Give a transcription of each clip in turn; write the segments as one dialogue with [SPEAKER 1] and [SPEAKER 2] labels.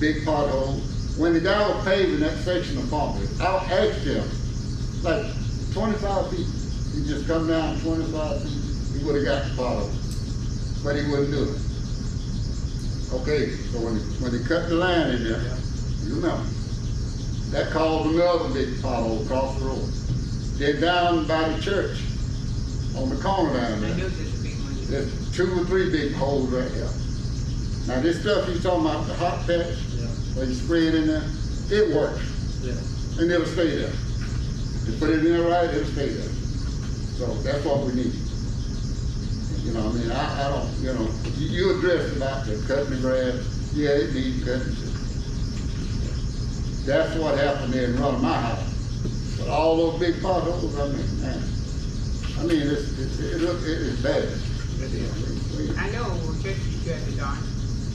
[SPEAKER 1] big pothole. When the guy was paving that section of property, I asked him, like twenty-five feet, he just come down twenty-five feet, he would've got the pothole, but he wouldn't do it. Okay, so when, when they cut the line in there, you remember, that caused another big pothole across the road. Then down by the church, on the corner down
[SPEAKER 2] I
[SPEAKER 1] there.
[SPEAKER 2] knew this would be one.
[SPEAKER 1] There's two or three big holes right here. Now, this stuff he's talking about, the hot patch,
[SPEAKER 3] Yeah,
[SPEAKER 1] where you spray it in there, it works,
[SPEAKER 3] yeah.
[SPEAKER 1] and it'll stay there. You put it in there right, it'll stay there. So that's what we need. You know, I mean, I, I don't, you know, you, you addressed about the cutting the grass, yeah, it needs cutting. That's what happened there in front of my house. But all those big potholes, I mean, man, I mean, it's, it's, it look, it is bad. We- we-
[SPEAKER 2] I know, well, just you have it on.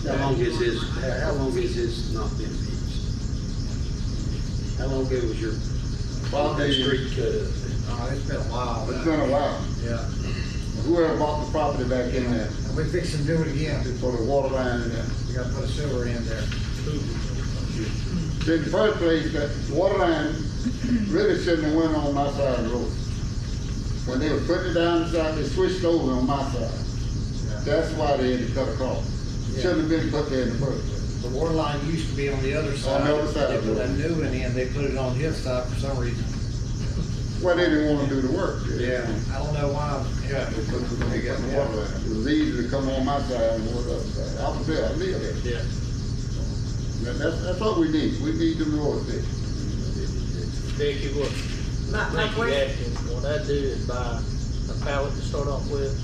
[SPEAKER 1] Yeah,
[SPEAKER 3] How
[SPEAKER 1] I'm-
[SPEAKER 3] long is his, how long is his not been fixed? How long ago was your
[SPEAKER 1] Well, they-
[SPEAKER 3] street cut up?
[SPEAKER 4] Oh, it's been a while.
[SPEAKER 1] It's been a while.
[SPEAKER 4] Yeah,
[SPEAKER 1] Whoever bought the property back in there,
[SPEAKER 4] and we fix and do it again,
[SPEAKER 1] for the water line in there.
[SPEAKER 4] we gotta put a sewer in there.
[SPEAKER 1] See, in the first place, that water line really shouldn't have went on my side of the road. When they were putting it down the side, they switched over on my side.
[SPEAKER 4] Yeah.
[SPEAKER 1] That's why they had to cut across. Shouldn't have been put there in the first place.
[SPEAKER 4] The water line used to be on the other side.
[SPEAKER 1] On the other side of
[SPEAKER 4] They
[SPEAKER 1] the
[SPEAKER 4] put a
[SPEAKER 1] road.
[SPEAKER 4] new one in, they put it on his side for some reason.
[SPEAKER 1] Well, they didn't wanna do the work.
[SPEAKER 4] I don't know why, yeah.
[SPEAKER 1] They put the they got the water line. It was easy to come on my side and water up side. I was there, I lived there.
[SPEAKER 3] Yeah.
[SPEAKER 1] That- That's, that's what we need. We need them roads fixed.
[SPEAKER 5] Vicky, what,
[SPEAKER 2] My, my
[SPEAKER 5] Vicky
[SPEAKER 2] question,
[SPEAKER 5] asking, what I do is buy a pallet to start off with,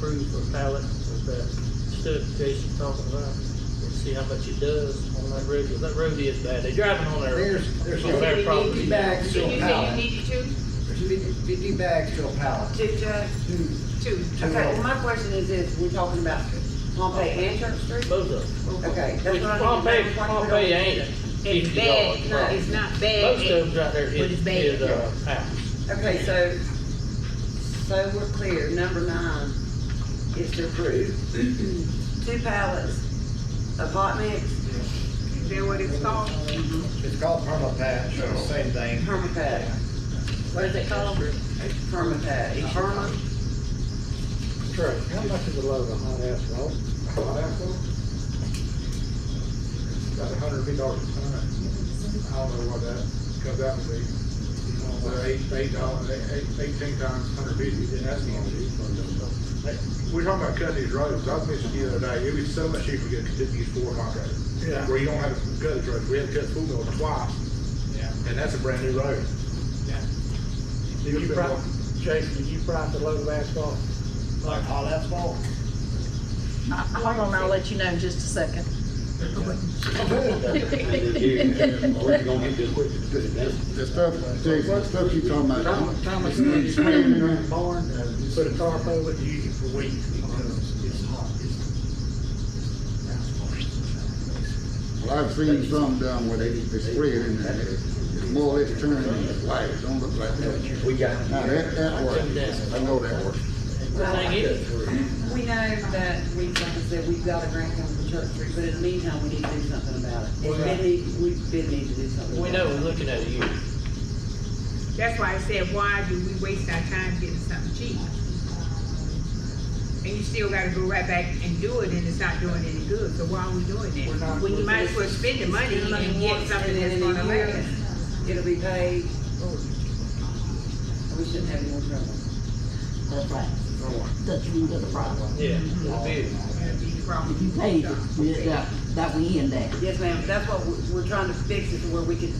[SPEAKER 5] proof for a pallet with that stuff Jason talking about, and see how much it does on that road, 'cause that road is bad, they driving on there.
[SPEAKER 4] There's, there's
[SPEAKER 5] So
[SPEAKER 4] over
[SPEAKER 5] that
[SPEAKER 4] fifty
[SPEAKER 5] probably-
[SPEAKER 4] bags
[SPEAKER 2] so
[SPEAKER 4] to a
[SPEAKER 2] you said you
[SPEAKER 4] pallet.
[SPEAKER 2] needed two?
[SPEAKER 4] There's fifty fifty bags to a pallet.
[SPEAKER 6] Two, Judge?
[SPEAKER 4] Two.
[SPEAKER 6] Two.
[SPEAKER 4] Two.
[SPEAKER 6] Okay, well, my question is this, we're talking about Pompey and Church Street?
[SPEAKER 5] Both of them.
[SPEAKER 6] Okay, that's
[SPEAKER 5] Which
[SPEAKER 6] what I need to
[SPEAKER 5] Pompey,
[SPEAKER 6] know.
[SPEAKER 5] Pompey ain't
[SPEAKER 2] It's
[SPEAKER 5] fifty
[SPEAKER 2] bad,
[SPEAKER 5] dollars.
[SPEAKER 2] no, it's not bad.
[SPEAKER 5] Most of them right there
[SPEAKER 2] But it's
[SPEAKER 5] is,
[SPEAKER 2] bad.
[SPEAKER 5] is, uh, out.
[SPEAKER 6] Okay, so, so we're clear, number nine is to approve two pallets of hot mix,
[SPEAKER 2] Is that what it's called?
[SPEAKER 5] Mm-hmm.
[SPEAKER 4] It's called perma patch, it's the same thing.
[SPEAKER 6] permapat,
[SPEAKER 2] What is it called?
[SPEAKER 6] permapat, perma,
[SPEAKER 3] Trey, how much is a load of hot asphalt?
[SPEAKER 7] That's a hundred fifty dollars a ton. I don't know what that comes out to be. But eight, eight dollars, eight, eighteen times hundred fifty, then that's gonna be. Hey, We're talking about cutting these roads. I was mentioning the other day, it would be so much cheaper to get to these four contractors.
[SPEAKER 3] Yeah.
[SPEAKER 7] Where you don't have to cut these roads. We had to cut Fulville twice,
[SPEAKER 3] Yeah.
[SPEAKER 7] and that's a brand new road.
[SPEAKER 3] Did you price, Jason, did you price a load of asphalt?
[SPEAKER 4] Like hot asphalt.
[SPEAKER 8] Hold on, I'll let you know in just a second.
[SPEAKER 3] Where you gonna get this quick?
[SPEAKER 1] The stuff, Jason, the stuff you talking about.
[SPEAKER 3] Thomas, Thomas,
[SPEAKER 1] You
[SPEAKER 3] you
[SPEAKER 1] spraying
[SPEAKER 3] sprayed
[SPEAKER 1] in
[SPEAKER 3] it in
[SPEAKER 1] there?
[SPEAKER 3] the barn, uh, put a tarp over it, use it for weeks because it's hot.
[SPEAKER 1] Well, I've seen some done where they, they spray it in there, it's more or less turning into white, it don't look like that.
[SPEAKER 3] We got.
[SPEAKER 1] Now, that, that works, I know that works.
[SPEAKER 5] The thing is,
[SPEAKER 6] we know that we, like I said, we've got a grant coming from Church Street, but in the meantime, we need to do something about it.
[SPEAKER 4] Well,
[SPEAKER 6] We need, we did need to do something.
[SPEAKER 5] we know
[SPEAKER 6] about it.
[SPEAKER 5] we're looking at a year.
[SPEAKER 2] That's why I said, why do we waste our time getting something cheap? And you still gotta go right back and do it, and it's not doing any good, so why are we doing
[SPEAKER 6] We're
[SPEAKER 2] that?
[SPEAKER 6] not-
[SPEAKER 2] When you might as well spend the money
[SPEAKER 6] Spend the money
[SPEAKER 2] and get
[SPEAKER 6] once,
[SPEAKER 2] something
[SPEAKER 6] and
[SPEAKER 2] that's
[SPEAKER 6] then in a
[SPEAKER 2] gonna
[SPEAKER 6] year,
[SPEAKER 2] last. Oh,
[SPEAKER 6] It'll be paid. We shouldn't have any more trouble.
[SPEAKER 9] That's right. That's the root of the problem.
[SPEAKER 5] Yeah, it'll be.
[SPEAKER 2] That'd be the problem.
[SPEAKER 9] If you paid it, we- that, that we end that.
[SPEAKER 6] Yes, ma'am, that's what, we- we're trying to fix it to where we can,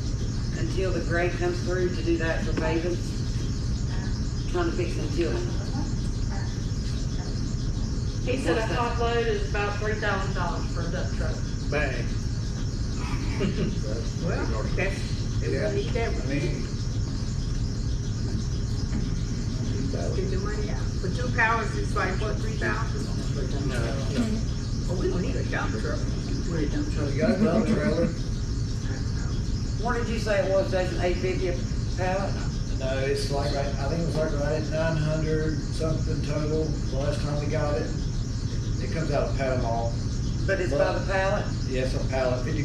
[SPEAKER 6] until the grade comes through to do that for paving. Trying to fix until.
[SPEAKER 10] He said a top load is about three thousand dollars for a dump truck.
[SPEAKER 4] Bag.
[SPEAKER 2] Well, that's, we need that,
[SPEAKER 4] I mean,
[SPEAKER 2] get the money out. For two powers, it's like, what, three thousand? Well, we don't need a dump truck.
[SPEAKER 4] you got a dump trailer,
[SPEAKER 6] What did you say it was, Jason, eight fifty a pallet?
[SPEAKER 4] No, Uh, it's like, right- I think it was like right at nine hundred something total, the last time we got it. It comes out of Panama,
[SPEAKER 6] But it's by the pallet?
[SPEAKER 4] yes, a pallet, fifty